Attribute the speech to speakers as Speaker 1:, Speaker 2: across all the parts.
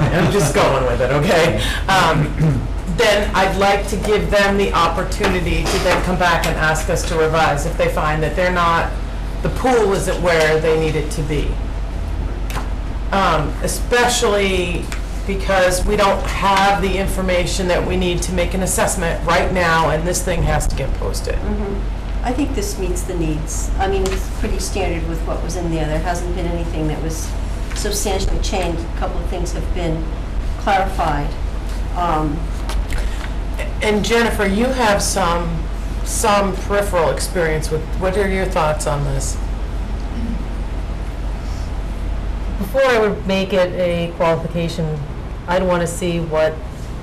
Speaker 1: I'm just going with it, okay? Um, Then I'd like to give them the opportunity to then come back and ask us to revise if they find that they're not, the pool isn't where they need it to be. Um, Especially because we don't have the information that we need to make an assessment right now, and this thing has to get posted.
Speaker 2: Mm-hmm. I think this meets the needs. I mean, it's pretty standard with what was in there. There hasn't been anything that was substantially changed. A couple of things have been clarified. Um,
Speaker 1: And Jennifer, you have some, some peripheral experience with, what are your thoughts on this?
Speaker 3: Before I would make it a qualification, I'd want to see what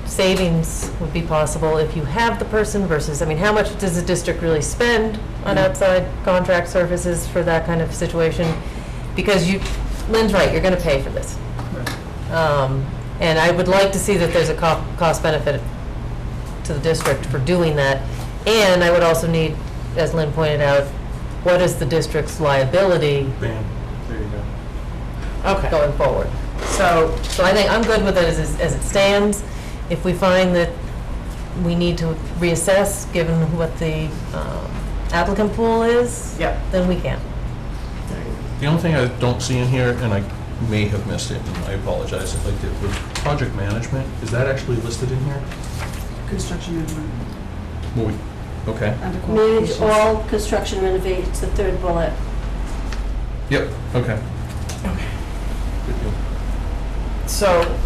Speaker 3: savings would be possible if you have the person versus, I mean, how much does the district really spend on outside contract services for that kind of situation? Because you, Lynn's right, you're going to pay for this. Um, And I would like to see that there's a co- cost benefit to the district for doing that. And I would also need, as Lynn pointed out, what is the district's liability
Speaker 4: Bam, there you go.
Speaker 1: Okay,
Speaker 3: going forward?
Speaker 1: so,
Speaker 3: So I think I'm good with it as, as it stands. If we find that we need to reassess, given what the um, applicant pool is,
Speaker 1: yeah,
Speaker 3: then we can.
Speaker 4: The only thing I don't see in here, and I may have missed it, and I apologize if I did, was project management. Is that actually listed in here?
Speaker 5: Construction management
Speaker 4: Well, we- Okay,
Speaker 5: under
Speaker 2: Manage
Speaker 5: qualifications.
Speaker 2: all construction renovate, it's the third bullet.
Speaker 4: yep, okay. Good deal.
Speaker 1: so,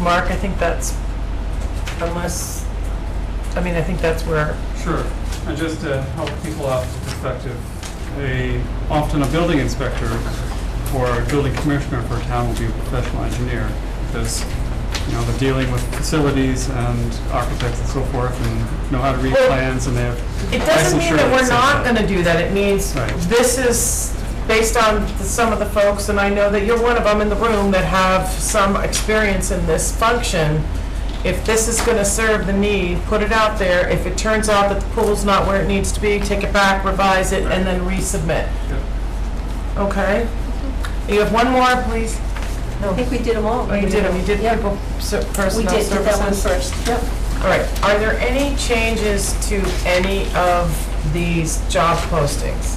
Speaker 1: Mark, I think that's, unless, I mean, I think that's where,
Speaker 6: Sure, and just to help people out with perspective, a, often a building inspector or a building commissioner for a town will be a professional engineer. Because, you know, they're dealing with facilities and architects and so forth and know how to read
Speaker 1: Well,
Speaker 6: plans and they have.
Speaker 1: it doesn't mean that we're not gonna do that, it means
Speaker 6: Right.
Speaker 1: this is based on the- some of the folks, and I know that you're one of them in the room that have some experience in this function. If this is gonna serve the need, put it out there, if it turns out that the pool's not where it needs to be, take it back, revise it, and then resubmit. Okay. You have one more, please?
Speaker 2: I think we did them all.
Speaker 1: Oh, you did them, you did
Speaker 2: Yeah.
Speaker 1: people, ser-
Speaker 2: We
Speaker 1: personnel
Speaker 2: did, did that one
Speaker 1: services.
Speaker 2: first. Yep.
Speaker 1: All right, are there any changes to any of these job postings?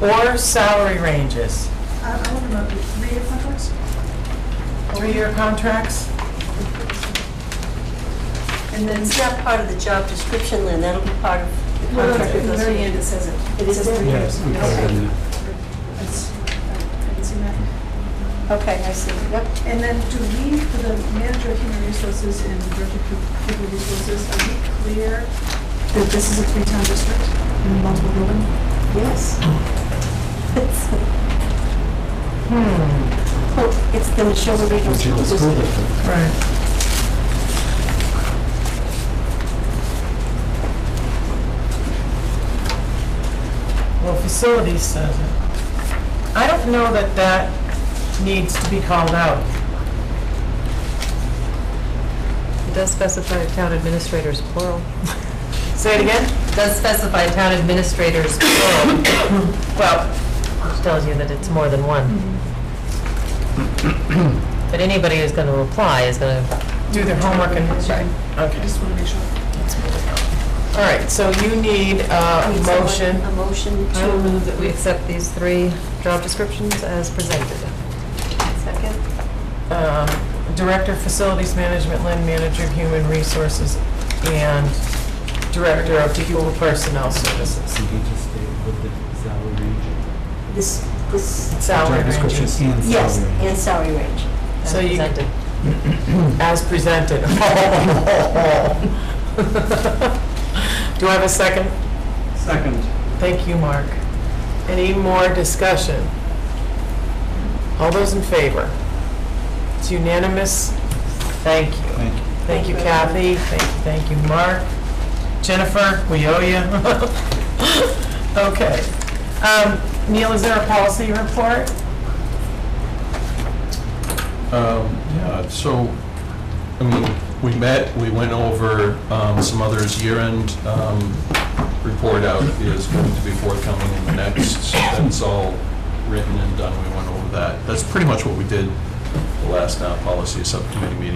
Speaker 1: Or salary ranges?
Speaker 5: I I want to know, three-year contracts?
Speaker 1: Three-year contracts?
Speaker 2: And then it's not part of the job description, Lynn, that'll be part of the
Speaker 5: No, no, at
Speaker 2: contract
Speaker 5: the
Speaker 2: with us.
Speaker 5: very end it says it.
Speaker 2: It is
Speaker 5: says
Speaker 2: there?
Speaker 5: three years.
Speaker 6: we covered it.
Speaker 5: It's- I didn't see that.
Speaker 2: Okay, I see, yep.
Speaker 5: And then do we, for the manager of human resources and director of human resources, are we clear that this is a three-town district in multiple building?
Speaker 2: Yes. It's- Well, Oh, It's the Neshoba Regional School District.
Speaker 1: Right. Well, facilities says it. I don't know that that needs to be called out.
Speaker 3: It does specify town administrators plural.
Speaker 1: Say it again?
Speaker 3: It Does specify town administrators plural,
Speaker 1: Well,
Speaker 3: which tells you that it's more than one. But anybody who's going to apply is going to,
Speaker 1: do their homework and,
Speaker 5: I
Speaker 1: okay.
Speaker 5: just want to make sure.
Speaker 1: All right, so you need
Speaker 2: I
Speaker 1: a
Speaker 2: mean, someone-
Speaker 1: motion.
Speaker 2: A motion
Speaker 3: I will move
Speaker 2: to,
Speaker 3: that we accept these three job descriptions as presented.
Speaker 2: second?
Speaker 1: um, Director of Facilities Management, Land Manager of Human Resources, and Director of People Personnel Services.
Speaker 7: You just stay with the salary range.
Speaker 2: This, this,
Speaker 1: Salary
Speaker 7: Job description
Speaker 1: ranges,
Speaker 7: and
Speaker 2: yes,
Speaker 7: salary.
Speaker 2: and salary range.
Speaker 3: as
Speaker 1: So you-
Speaker 3: presented.
Speaker 1: as presented. Do I have a second?
Speaker 6: Second.
Speaker 1: Thank you, Mark. Any more discussion? All those in favor? It's unanimous. Thank you.
Speaker 7: Thank you.
Speaker 1: Thank you, Kathy. Thank you, thank you, Mark. Jennifer, we owe you. Okay. Um, Neil, is there a policy report?
Speaker 4: Um, Yeah, so, I mean, we met, we went over um, some others, year-end um, report out is going to be forthcoming in the next, so that's all written and done, we went over that. That's pretty much what we did the last uh, policy subcommittee meeting.